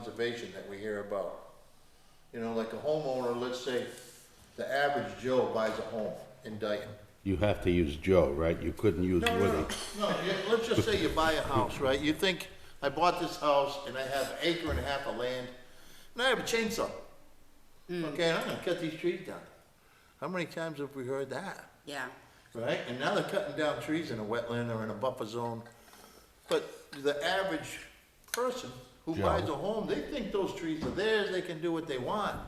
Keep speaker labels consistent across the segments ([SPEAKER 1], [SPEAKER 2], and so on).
[SPEAKER 1] conservation that we hear about. You know, like a homeowner, let's say, the average Joe buys a home in Dayton.
[SPEAKER 2] You have to use Joe, right? You couldn't use
[SPEAKER 1] No, no,
[SPEAKER 2] Woody.
[SPEAKER 1] no, no, you- let's just say you buy a house, right? You think, I bought this house and I have an acre and a half of land, and I have a chainsaw. Okay, and I'm gonna cut these trees down. How many times have we heard that?
[SPEAKER 3] Yeah,
[SPEAKER 1] right? And now they're cutting down trees in a wetland or in a buffer zone. But the average person who
[SPEAKER 2] Joe.
[SPEAKER 1] buys a home, they think those trees are theirs, they can do what they want,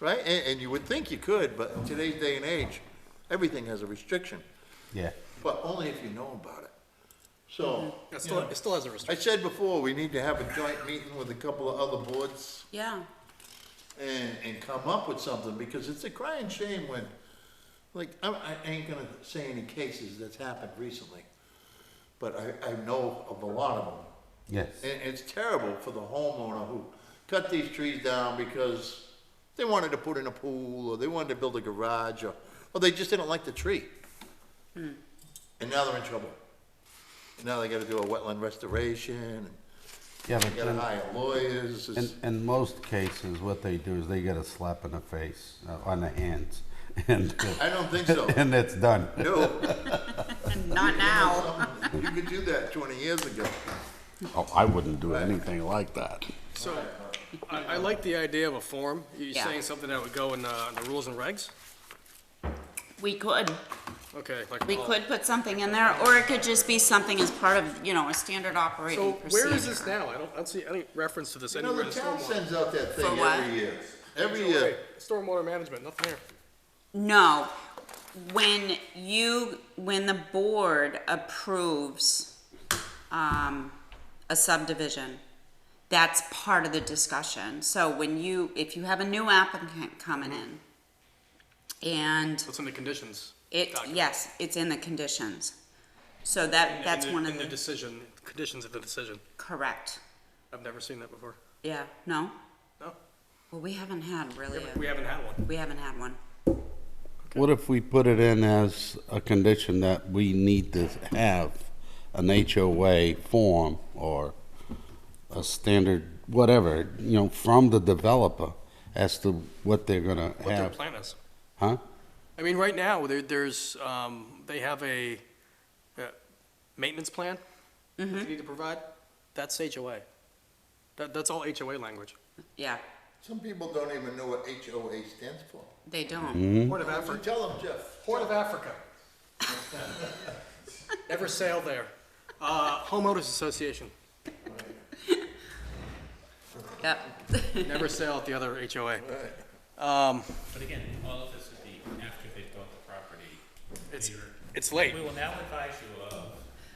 [SPEAKER 1] right? And, and you would think you could, but in today's day and age, everything has a restriction,
[SPEAKER 2] Yeah.
[SPEAKER 1] but only if you know about it. So,
[SPEAKER 4] It
[SPEAKER 1] you
[SPEAKER 4] still,
[SPEAKER 1] know,
[SPEAKER 4] it still has a restriction.
[SPEAKER 1] I said before, we need to have a joint meeting with a couple of other boards
[SPEAKER 3] yeah.
[SPEAKER 1] and, and come up with something, because it's a crying shame when, like, I, I ain't gonna say any cases that's happened recently, but I, I know of a lot of them.
[SPEAKER 2] Yes.
[SPEAKER 1] And it's terrible for the homeowner who cut these trees down because they wanted to put in a pool, or they wanted to build a garage, or, or they just didn't like the tree. And now they're in trouble. And now they gotta do a wetland restoration, and
[SPEAKER 2] Yeah,
[SPEAKER 1] they
[SPEAKER 2] but
[SPEAKER 1] gotta
[SPEAKER 2] then,
[SPEAKER 1] hire lawyers,
[SPEAKER 2] in,
[SPEAKER 1] it's,
[SPEAKER 2] in most cases, what they do is they get a slap in the face, uh, on the hands, and
[SPEAKER 1] I don't think so,
[SPEAKER 2] and it's done.
[SPEAKER 1] no.
[SPEAKER 3] Not now.
[SPEAKER 1] You could do that twenty years ago.
[SPEAKER 2] Oh, I wouldn't do anything like that.
[SPEAKER 4] So, I, I like the idea of a form. You're
[SPEAKER 3] Yeah.
[SPEAKER 4] saying something that would go in, uh, in the rules and regs?
[SPEAKER 3] We could,
[SPEAKER 4] Okay, like. uh,
[SPEAKER 3] we
[SPEAKER 4] all-
[SPEAKER 3] could put something in there, or it could just be something as part of, you know, a standard
[SPEAKER 4] So
[SPEAKER 3] operating procedure.
[SPEAKER 4] where is this now? I don't, I don't see any reference to this
[SPEAKER 1] You know,
[SPEAKER 4] anywhere. in
[SPEAKER 1] the
[SPEAKER 4] the
[SPEAKER 1] town
[SPEAKER 4] stormwater.
[SPEAKER 1] sends out that
[SPEAKER 3] For
[SPEAKER 1] thing
[SPEAKER 3] what?
[SPEAKER 1] every year, every uh,
[SPEAKER 4] Stormwater-
[SPEAKER 1] year.
[SPEAKER 4] Stormwater management, nothing here.
[SPEAKER 3] No, when you, when the board approves, um, a subdivision, that's part of the discussion. So when you, if you have a new applicant coming in, and
[SPEAKER 4] What's in the conditions?
[SPEAKER 3] it,
[SPEAKER 4] document?
[SPEAKER 3] yes, it's in the conditions. So
[SPEAKER 4] In
[SPEAKER 3] that,
[SPEAKER 4] the-
[SPEAKER 3] that's
[SPEAKER 4] in the-
[SPEAKER 3] one of
[SPEAKER 4] In the
[SPEAKER 3] the,
[SPEAKER 4] decision, conditions of the decision.
[SPEAKER 3] correct,
[SPEAKER 4] I've never seen that before.
[SPEAKER 3] yeah, no?
[SPEAKER 4] No?
[SPEAKER 3] Well, we haven't had really,
[SPEAKER 4] We haven't- We
[SPEAKER 3] a-
[SPEAKER 4] haven't had one.
[SPEAKER 3] we haven't had one.
[SPEAKER 2] What if we put it in as a condition that we need to have an HOA form or a standard, whatever, you know, from the developer as to what they're gonna
[SPEAKER 4] What their
[SPEAKER 2] have,
[SPEAKER 4] plan is.
[SPEAKER 2] huh?
[SPEAKER 4] I mean, right now, there, there's, um, they have a, uh, maintenance plan that they need to provide. That's HOA. That, that's all HOA language.
[SPEAKER 3] Yeah,
[SPEAKER 1] Some people don't even know what HOA stands for.
[SPEAKER 3] they don't.
[SPEAKER 4] Hmm? Port of
[SPEAKER 1] So
[SPEAKER 4] Africa.
[SPEAKER 1] Tell them, Jeff.
[SPEAKER 4] Port of Africa. Never sail there. Uh, homeowners association.
[SPEAKER 3] Yep.
[SPEAKER 4] Never sail at the other HOA. Um,
[SPEAKER 5] But again, all of this would be after they've built the property.
[SPEAKER 4] it's,
[SPEAKER 5] Peter.
[SPEAKER 4] it's late.
[SPEAKER 5] We will now advise you of.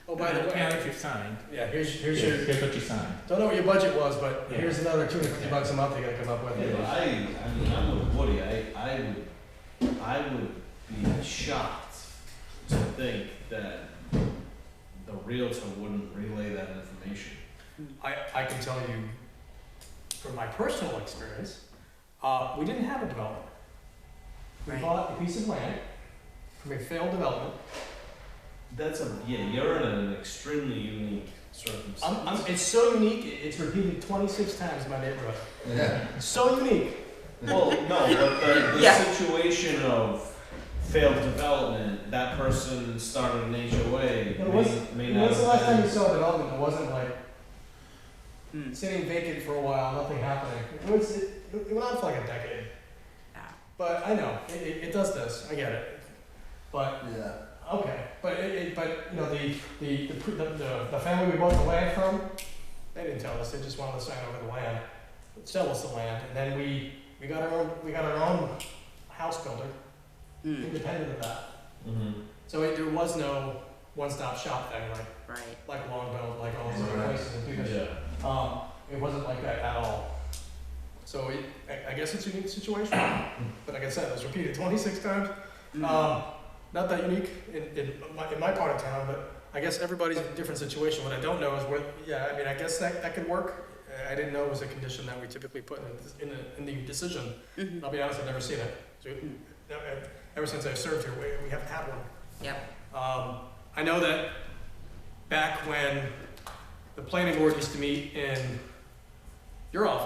[SPEAKER 4] Oh, by the
[SPEAKER 5] Now
[SPEAKER 4] way,
[SPEAKER 5] that you've signed.
[SPEAKER 4] yeah, here's, here's your,
[SPEAKER 5] Here's what you signed.
[SPEAKER 4] don't know what your budget was, but here's another two hundred fifty bucks a month they gotta come up with.
[SPEAKER 6] Yeah, I, I mean, I'm with Woody, I, I would, I would be shocked to think that the Realtor wouldn't relay that information.
[SPEAKER 7] I, I can tell you from my personal experience, uh, we didn't have a development. We
[SPEAKER 3] Right.
[SPEAKER 7] bought a piece of land from a failed development.
[SPEAKER 6] That's a, yeah, you're in an extremely unique circumstance.
[SPEAKER 7] I'm, I'm, it's so unique, it- it's repeated 26 times in my neighborhood.
[SPEAKER 1] Yeah.
[SPEAKER 7] So unique.
[SPEAKER 6] Well, no, but the, the
[SPEAKER 3] Yeah.
[SPEAKER 6] situation of failed development, that person started an HOA,
[SPEAKER 7] But when's,
[SPEAKER 6] may, may not.
[SPEAKER 7] when's the last time
[SPEAKER 6] have
[SPEAKER 7] you saw a development that wasn't like
[SPEAKER 3] Hmm.
[SPEAKER 7] sitting vacant for a while, nothing happening? It, was, it, it went on for like a decade.
[SPEAKER 3] Yeah.
[SPEAKER 7] But I know, it, it, it does this, I get it. But
[SPEAKER 1] Yeah.
[SPEAKER 7] Okay, but it, it, but, you know, the, the, the, pr- the, the- the family we bought the land from, they didn't tell us, they just wanted to sign over the land, sell us the land, and then we, we got our own, we got our own house builder,
[SPEAKER 3] Mm,
[SPEAKER 7] independent of that.
[SPEAKER 6] Mhm.
[SPEAKER 7] So it, there was no one-stop shop thing, like,
[SPEAKER 3] right.
[SPEAKER 7] like Longboat, like all these other
[SPEAKER 1] Right.
[SPEAKER 7] places in Petersham.
[SPEAKER 6] Yeah.
[SPEAKER 7] Um, it wasn't like that at all. So it, I, I guess it's a unique situation, but like I said, it was repeated twenty-six times.
[SPEAKER 3] Mm.
[SPEAKER 7] Um, not that unique in, in my, in my part of town, but I guess everybody's in a different situation. What I don't know is what, yeah, I mean, I guess that, that could work. Uh, I didn't know it was a condition that we typically put in, the- in the, in the decision.
[SPEAKER 3] Mhm.
[SPEAKER 7] I'll be honest, I've never seen it. So, no, ev- Ever since I've served here, we, we haven't had one.
[SPEAKER 3] Yep.
[SPEAKER 7] Um, I know that back when the planning board used to meet in You're off